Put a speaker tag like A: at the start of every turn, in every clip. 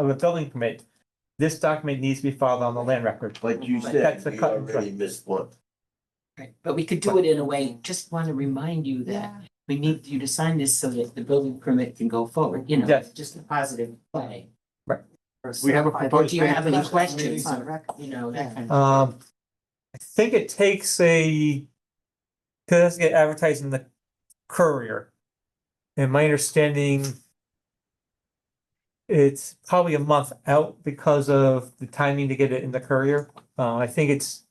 A: of a building permit, this document needs to be filed on the land record.
B: Like you
A: But
B: said,
A: that's a
B: we
A: cut and dry.
B: already missed one.
C: Right, but we could do it in a way, just want to remind you that we need you to sign this so that the building permit can go forward, you know,
A: Yes.
C: just a positive way.
A: Right.
D: We have a
C: Or
D: proposed.
C: do you have any
D: change.
C: questions on, rec- you know, that kind of.
A: Um, I think it takes a, cause it has to get advertised in the courier. And my understanding, it's probably a month out because of the timing to get it in the courier. Uh, I think it's,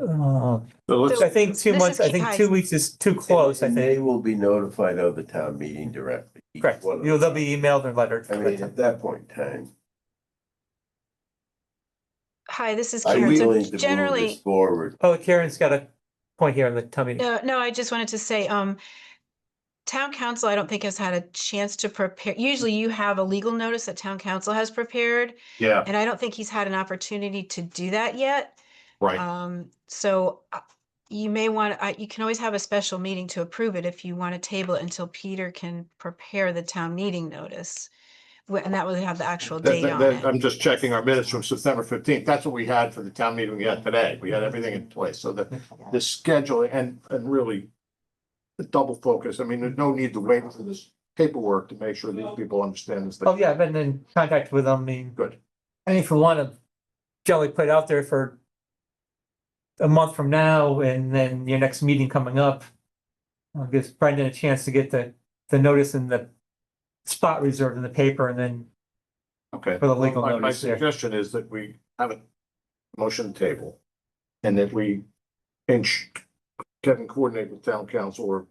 A: uh,
D: So let's,
A: I think two
E: This
A: months,
E: is
A: I think
E: Keith
A: two weeks is too close, I
B: And
A: think.
B: They will be notified of the town meeting directly. each
A: Correct.
B: one of
A: You know, they'll
B: them.
A: be emailed or
B: I mean,
A: lettered. uh,
B: at that point in time,
E: Hi, this is
B: I'm
E: Karen.
B: willing
E: So
B: to move this
E: generally,
B: forward.
A: Oh, Karen's got a point here on the tummy.
E: no, no, I just wanted to say, um, town council, I don't think has had a chance to prepare. Usually you have a legal notice that town council has prepared,
D: yeah,
E: and I don't think he's had an opportunity to do that yet.
D: right.
E: Um, so uh, you may want, I, you can always have a special meeting to approve it if you want to table it until Peter can prepare the town meeting notice. Wh- And that would have the actual
D: That-
E: date
D: that-
E: on
D: that-
E: it.
D: I'm just checking our minutes from September fifteenth. That's what we had for the town meeting we had today. We had everything in place. So the, the schedule and, and really the double focus. I mean, there's no need to wait for this paperwork to make sure these people understand this
A: Oh,
D: thing.
A: yeah, I've been in contact with them, I mean.
D: Good.
A: I mean, if we want to generally put it out there for a month from now and then your next meeting coming up, uh, gives Brendan a chance to get the, the notice in the spot reserved in the paper and then
D: Okay.
A: for the legal
D: My, my
A: notice there.
D: suggestion is that we have a motion table and that we inch, Kevin coordinate with town council or,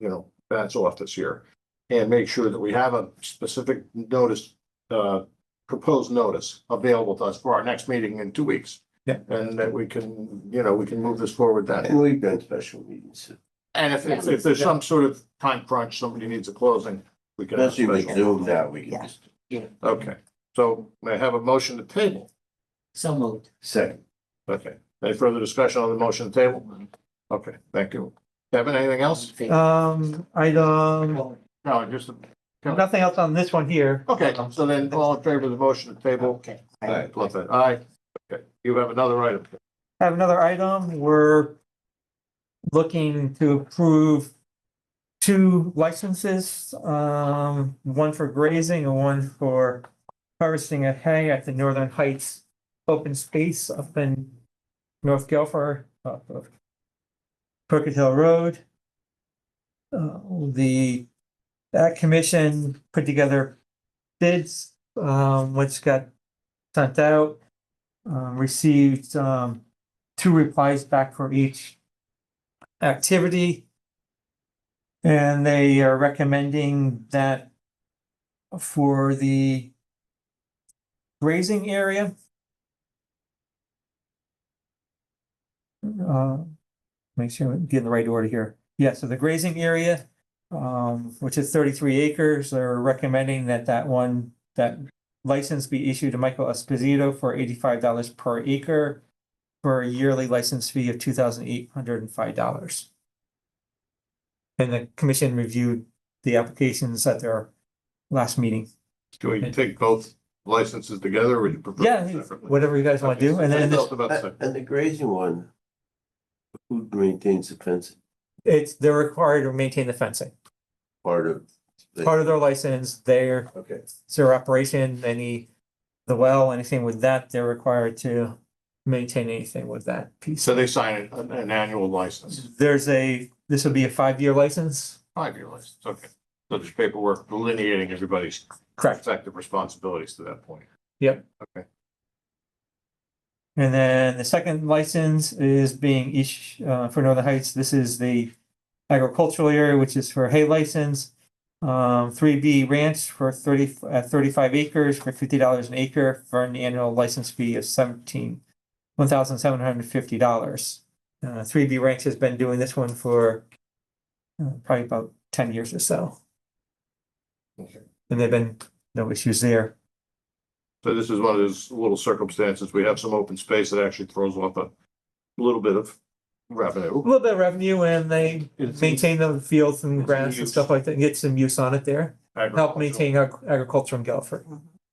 D: you know, that's office here. And make sure that we have a specific notice, uh, proposed notice available to us for our next meeting in two weeks.
A: Yeah.
D: And that we can, you know, we can move this forward then.
B: And we've done special meetings,
D: And if, if if there's some sort of time crunch, somebody needs a closing, we can. have a
B: especially with
D: special-
B: Zoom now, we can just
D: Okay, so may I have a motion to table?
C: So moved.
B: second.
D: Okay, any further discussion on the motion table? Okay, thank you. Kevin, anything else?
A: Um, item,
C: Forward.
D: No, just,
A: nothing else on this one here.
D: okay, so then all in favor of the motion to table?
C: Okay.
B: Aye.
D: Love that, aye. Okay, you have another item.
A: I Have another item, we're looking to approve two licenses, um, one for grazing and one for harvesting of hay at the Northern Heights Open Space up in North Guilford, off of Crooked Hill Road. Uh, the, that commission put together bids, um, which got sent out um, received, um, two replies back for each activity. And they are recommending that for the grazing area. Uh, make sure I'm getting the right order here. Yeah, so the grazing area, um, which is thirty-three acres, they're recommending that that one, that license be issued to Michael Esposito for eighty-five dollars per acre for a yearly license fee of two thousand eight hundred and five dollars. And the commission reviewed the applications at their last meeting.
D: Do we take both licenses together or would you prefer?
A: Yeah, whatever you guys want to do. And then
D: Just about to say.
B: And the grazing one, who maintains the fence
A: it's, they're required to maintain the fencing.
B: part of? the-
A: Part of their license, their,
B: Okay,
A: it's their operation, any, the well, anything with that, they're required to maintain anything with that piece.
D: So they sign an, an annual license,
A: There's a, this would be a five-year license?
D: five-year license, okay. So there's paperwork delineating everybody's
A: Correct.
D: effective responsibilities to that point.
A: And then the second license is being each, uh, for Northern Heights, this is the agricultural area, which is for hay license. Um, three B ranch for thirty, uh, thirty-five acres for fifty dollars an acre for an annual license fee of seventeen, one thousand seven hundred and fifty dollars. Uh, three B ranch has been doing this one for uh, probably about ten years or so.
D: Okay.
A: And they've been, no issues there.
D: So this is one of those little circumstances, we have some open space that actually throws off a little bit of revenue.
A: a little bit of revenue and they
D: It's-
A: maintain the fields
D: it's
A: and
D: in
A: grass and
D: use.
A: stuff like that, and get some use on it there. Help maintain ag- agriculture in Guilford.